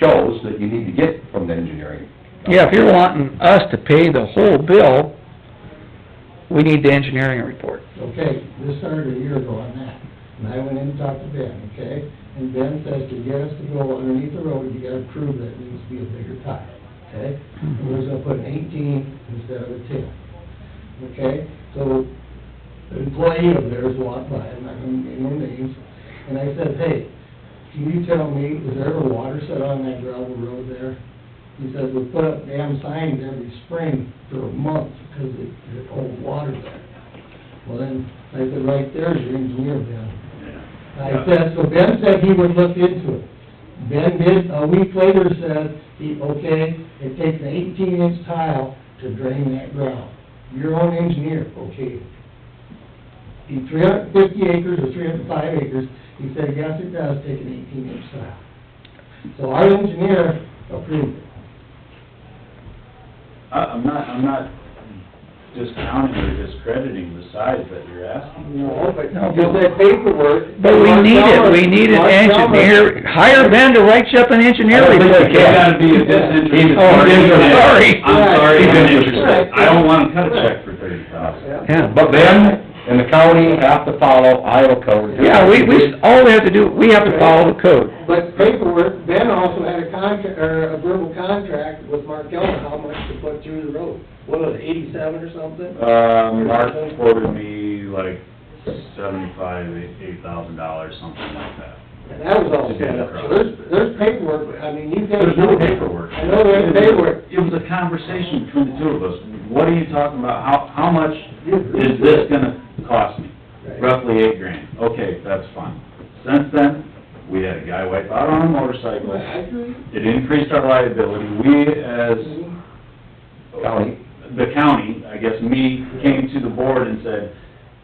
shows that you need to get from the engineering. Yeah, if you're wanting us to pay the whole bill, we need the engineering report. Okay, this started a year ago on that, and I went in and talked to Ben, okay? And Ben says to get us to go underneath the road, you gotta prove that it needs to be a bigger tile, okay? And we're gonna put an eighteen instead of a ten, okay? So, an employee of theirs walked by, I'm not gonna name no names, and I said, hey, can you tell me, is there ever water set on that gravel road there? He says, we put up damn signs every spring for a month, because it, it holds water there. Well, then, I said, right there's your engineer, Ben. I said, so Ben said he would look into it. Ben did, a week later said, he, okay, it takes an eighteen inch tile to drain that ground. Your own engineer, okay. He, three hundred and fifty acres or three hundred and five acres, he said, yes, it does take an eighteen inch tile. So our engineer approved it. I- I'm not, I'm not discounting or discrediting the size that you're asking. No, but No, but- that paperwork. But we Mark need it, we Chalmers- need an Mark Chalmers- engineer, hire Ben to write you up an engineer I don't report. think It's gotta be a disinterested Oh, party. I'm sorry. I'm sorry, I'm Right. interested. I don't wanna cut a check for thirty thousand. Yeah. But Ben and the county have to follow Iowa code. Yeah, we, we, all they have to do, we have to follow the code. But paperwork, Ben also had a contract, or a verbal contract with Markel on how much to put through the road. What was it, eighty-seven or something? Um, Mark quoted me like seventy-five, eight thousand dollars, something like that. And that was all set up. So there's, there's paperwork, but I mean, you guys. There's no paperwork. I know there's paperwork. It was a conversation between the two of us. What are you talking about? How, how much is this gonna cost me? Roughly eight grand. Okay, that's fine. Since then, we had a guy wipe out on a motorcycle. I agree. It increased our liability. We as County. the county, I guess me, came to the board and said,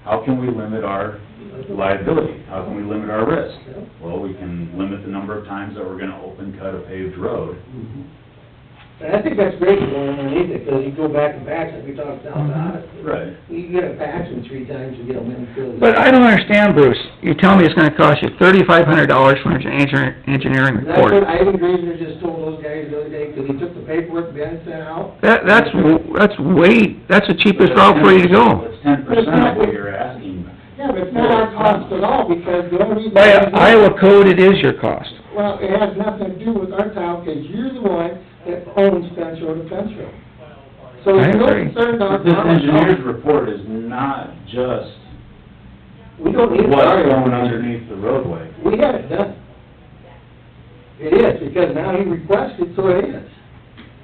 how can we limit our liability? How can we limit our risk? Well, we can limit the number of times that we're gonna open cut a paved road. And I think that's great going underneath it, because you go back and back, like we talked down to Odyssey. Right. You get a patch in three times, you get them in. filled in. But I don't understand, Bruce, you tell me it's gonna cost you thirty-five hundred dollars for an engineer, engineering And That's what report. Ivan Greener just told those guys the other day, because he took the paperwork Ben sent out. That, that's, w- that's way, that's the cheapest route for you to go. It's ten percent of what you're asking. Yeah, but it's not our cost at all, because the only reason. By Iowa code, it is your cost. Well, it has nothing to do with our town, because you're the one that owns Fence Road to Fence Road. So I it's no agree. concern But on this our engineer's report is not just We don't need it. what's going underneath the roadway. We had it done. It is, because now he requested, so it is.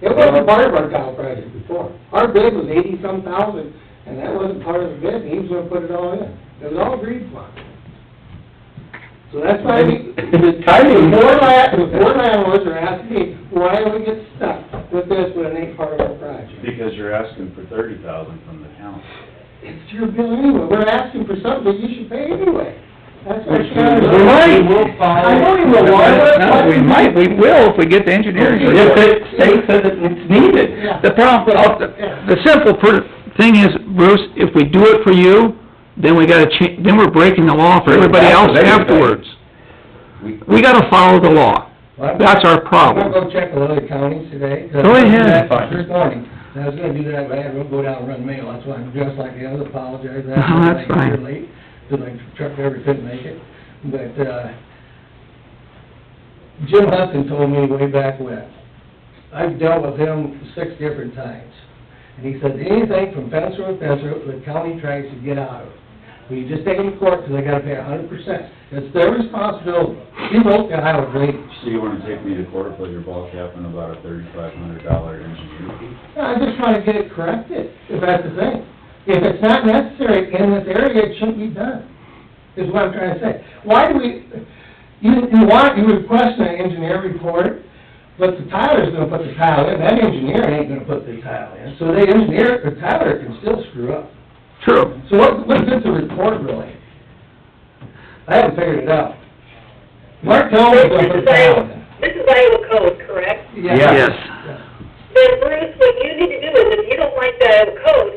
It wasn't part of our tile project before. Our bid was eighty-some thousand, and that wasn't part of the bid, and he was gonna put it all in. It was all agreed upon. So that's why we, the Timing. four land, the four landlords are asking me, why do we get stuck with this when it ain't part of our project? Because you're asking for thirty thousand from the county. It's your bill anyway, we're asking for something that you should pay anyway. That's what Which we Shannon will- does. we will follow. I know you will, why would- No, we might, we will if we get the engineering If report. it states that it's needed. Yeah. The problem, uh, the simple per, thing is, Bruce, if we do it for you, then we gotta cha, then we're breaking the law for everybody else afterwards. We gotta follow the law. That's our I'm problem. gonna go check with other counties today. Uh, Go ahead. This morning, and I was gonna do that, but I had to go down and run mail, that's why I'm dressed like I was, apologize, I No, Uh-huh, that's was like fine. here late, because my truck driver couldn't make it, but, uh, Jim Hudson told me way back when, I've dealt with him six different times, and he said, anything from fence road, to fence road, the county tries to get out of it. We just take it to court, because they gotta pay a hundred percent, it's their responsibility, he wrote the Iowa drainage. So you wanna take me to court for your ball cap and about a thirty-five hundred dollar engineer fee? I just trying to get it corrected, if that's the thing. If it's not necessary in this area, it shouldn't be done, is what I'm trying to say. Why do we, you, you want, you request an engineer report, but the tiler's gonna put the tile in, that engineer ain't gonna put the tile in. So the engineer, the tiler can still screw up. True. So what, what is the report really? I haven't figured it out. Mark told me This to put is the tile Iowa, in. this is Iowa code, correct? Yeah. Yes. Then Bruce, what you need to do is, if you don't like the Iowa code,